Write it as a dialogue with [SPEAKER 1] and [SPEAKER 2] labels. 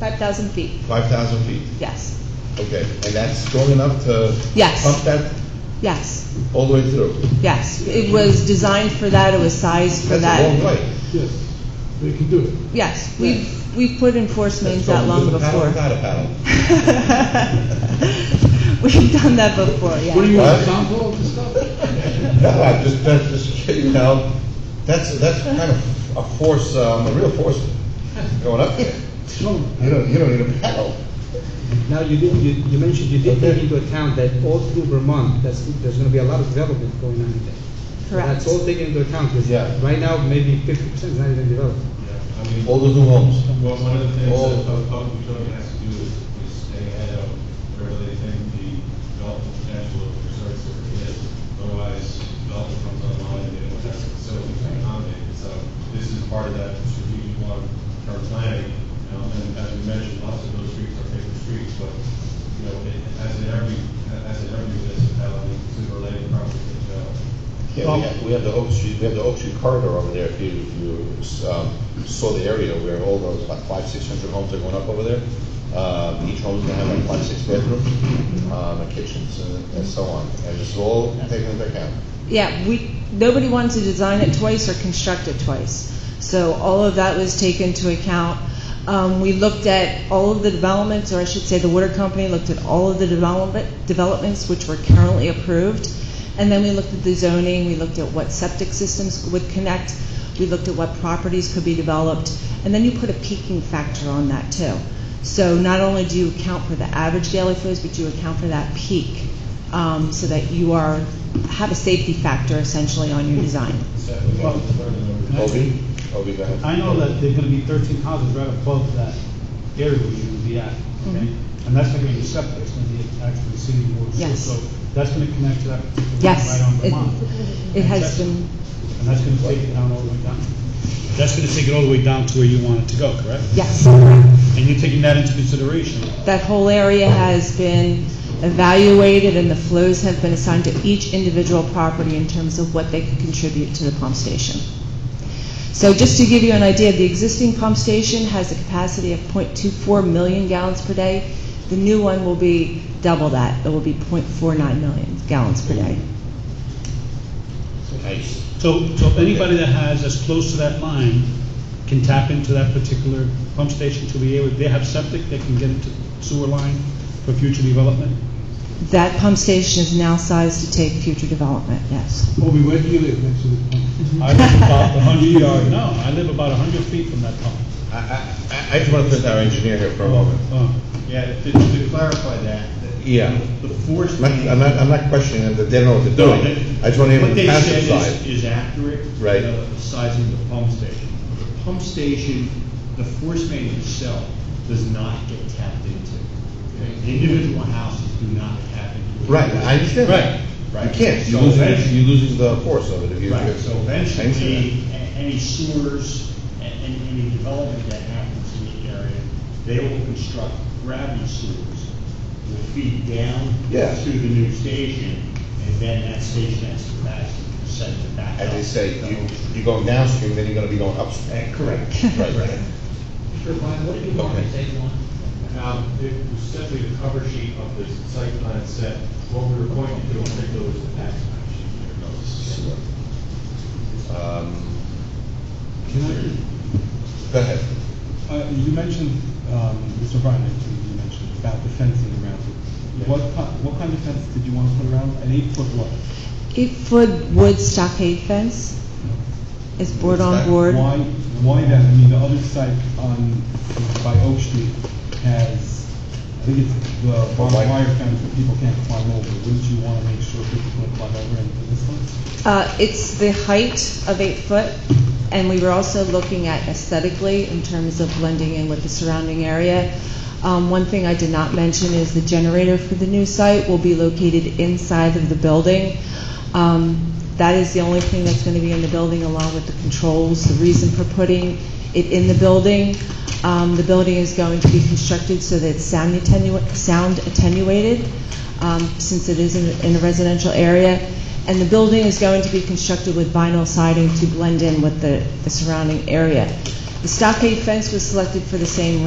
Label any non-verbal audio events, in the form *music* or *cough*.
[SPEAKER 1] 5,000 feet,
[SPEAKER 2] Five thousand feet,
[SPEAKER 1] yes,
[SPEAKER 2] okay, and that's strong enough to?
[SPEAKER 1] Yes.
[SPEAKER 2] Pump that
[SPEAKER 1] yes,
[SPEAKER 2] all the way through?
[SPEAKER 1] yes. It was designed for that, it was sized for
[SPEAKER 2] That's a long
[SPEAKER 1] that.
[SPEAKER 2] way.
[SPEAKER 3] Yes, they can do it.
[SPEAKER 1] Yes, we've, we've put in force mains that
[SPEAKER 2] That's from
[SPEAKER 1] long
[SPEAKER 2] with a paddle,
[SPEAKER 1] before.
[SPEAKER 2] Without a
[SPEAKER 1] *laughs*
[SPEAKER 2] paddle.
[SPEAKER 1] We've done that before,
[SPEAKER 3] What do
[SPEAKER 1] yeah.
[SPEAKER 3] you,
[SPEAKER 2] What?
[SPEAKER 3] a town hall to stop?
[SPEAKER 2] No, I just, that's just, you know, that's, that's kind of a force, um, a real force going
[SPEAKER 1] *laughs*
[SPEAKER 2] up there.
[SPEAKER 4] No,
[SPEAKER 2] You don't, you don't need a paddle.
[SPEAKER 4] Now, you did, you, you mentioned you did take into account that all through Vermont, that's, there's gonna be a lot of development going on there. So
[SPEAKER 1] Correct.
[SPEAKER 4] That's all taken into account, because
[SPEAKER 2] Yeah.
[SPEAKER 4] right now, maybe fifty percent is not even developed.
[SPEAKER 5] Yeah, I mean,
[SPEAKER 2] All those new homes.
[SPEAKER 5] well, one of the things
[SPEAKER 2] all-
[SPEAKER 5] that pub- public utility has to do is, is stay ahead of where they think the development potential of the resource area is. Otherwise, development comes online and they don't have facilities to accommodate. it. So this is part of that strategic long-term planning. Um, and as we mentioned, lots of those streets are paper streets, but, you know, it, as in every, as in every municipality, it's related property to develop.
[SPEAKER 2] Yeah, we have, we have the Oak Street, we have the Oak Street corridor over there, if you, if you, um, saw the area where all those, like, five, six hundred homes are going up over there. Um, each home's gonna have like five, six bedrooms, um, and kitchens and, and so on, and it's all taken into account.
[SPEAKER 1] Yeah, we, nobody wanted to design it twice or construct it twice. So all of that was taken into account. Um, we looked at all of the developments, or I should say, the water company looked at all of the development, developments which were currently approved. And then we looked at the zoning, we looked at what septic systems would connect, we looked at what properties could be developed, and then you put a peaking factor on that too. So not only do you account for the average daily flows, but you account for that peak, um, so that you are, have a safety factor essentially on your design.
[SPEAKER 5] So, we want to learn and learn.
[SPEAKER 2] Obi, Obi, go ahead.
[SPEAKER 6] I know that there're gonna be thirteen houses right above that area where you're gonna be at, okay? And that's not gonna be septic, it's gonna be actually receiving water.
[SPEAKER 1] Mm-hmm. Yes.
[SPEAKER 6] So that's gonna connect to that particular
[SPEAKER 1] Yes,
[SPEAKER 6] right on
[SPEAKER 1] it-
[SPEAKER 6] Vermont.
[SPEAKER 1] It has
[SPEAKER 6] That's-
[SPEAKER 1] been,
[SPEAKER 6] And that's gonna take it down all the way down. That's gonna take it all the way down to where you want it to go, correct?
[SPEAKER 1] yes,
[SPEAKER 6] And you're taking that into consideration.
[SPEAKER 1] that whole area has been evaluated and the flows have been assigned to each individual property in terms of what they could contribute to the pump station. So just to give you an idea, the existing pump station has a capacity of 0.24 million gallons per day. The new one will be double that. It will be 0.49 million gallons per day.
[SPEAKER 2] Nice.
[SPEAKER 6] So, so anybody that has as close to that line can tap into that particular pump station to be able, they have septic, they can get into sewer line for future development?
[SPEAKER 1] That pump station is now sized to take future development, yes.
[SPEAKER 3] Obi, where do you live next to the pump?
[SPEAKER 6] I live about a hundred yard, no, I live about a hundred feet from that pump.
[SPEAKER 2] I, I, I- I just want to put our engineer here for a moment.
[SPEAKER 6] Oh,
[SPEAKER 5] Yeah, to, to clarify that, that
[SPEAKER 2] Yeah.
[SPEAKER 5] the force
[SPEAKER 2] I'm not, I'm not, I'm not questioning them, that they don't know what they're doing. I just want to hear
[SPEAKER 5] What
[SPEAKER 2] the
[SPEAKER 5] they
[SPEAKER 2] passive
[SPEAKER 5] said is,
[SPEAKER 2] side.
[SPEAKER 5] is accurate. uh,
[SPEAKER 2] Right.
[SPEAKER 5] The the size of the pump station. The pump station, the force main itself does not get tapped into. Okay? Individual houses do not tap into it.
[SPEAKER 2] Right, I understand. that.
[SPEAKER 5] Right.
[SPEAKER 2] You can't, you
[SPEAKER 5] So
[SPEAKER 2] lose,
[SPEAKER 5] eventually-
[SPEAKER 2] you lose the force of it if you.
[SPEAKER 5] Right, so eventually,
[SPEAKER 2] Thanks
[SPEAKER 5] a- any sewers and and any development that happens in the area, they will construct gravity sewers, will feed down
[SPEAKER 2] Yeah.
[SPEAKER 5] to the new station, and then that station has to back, send it back
[SPEAKER 2] As
[SPEAKER 5] up.
[SPEAKER 2] they say, you, you're going downstream, then you're going to be going upstream.
[SPEAKER 5] Uh, Correct.
[SPEAKER 2] Right.
[SPEAKER 7] what do you
[SPEAKER 2] want
[SPEAKER 7] want
[SPEAKER 2] in
[SPEAKER 7] in phase one?
[SPEAKER 5] Um, it was simply the cover sheet of the site plan set. What we were pointing to in particular was the tax map sheet. There it goes.
[SPEAKER 2] Um,
[SPEAKER 6] can
[SPEAKER 2] Go ahead.
[SPEAKER 6] I, uh, you mentioned, um, Mr. Bryan, actually, you mentioned about the fencing around it. What ki- what kind of fence did you want to put around, an eight foot what?
[SPEAKER 1] Eight-foot wood stockade fence is board on board.
[SPEAKER 6] Why, why that, I mean, the other side on, by Oak Street has, I think it's the barbed
[SPEAKER 2] white-
[SPEAKER 6] wire fence that people can't climb over. Wouldn't you wanna make sure people can climb over into this one?
[SPEAKER 1] Uh, It's the height of eight foot, and we were also looking at aesthetically in terms of blending in with the surrounding area. Um, One thing I did not mention is the generator for the new site will be located inside of the building. Um, That is the only thing that's going to be in the building along with the controls, the reason for putting it in the building. Um, The building is going to be constructed so that it's sound attenua- sound attenuated, um, since it is in- in a residential area. And the building is going to be constructed with vinyl siding to blend in with the, the surrounding area. The stockade fence was selected for the same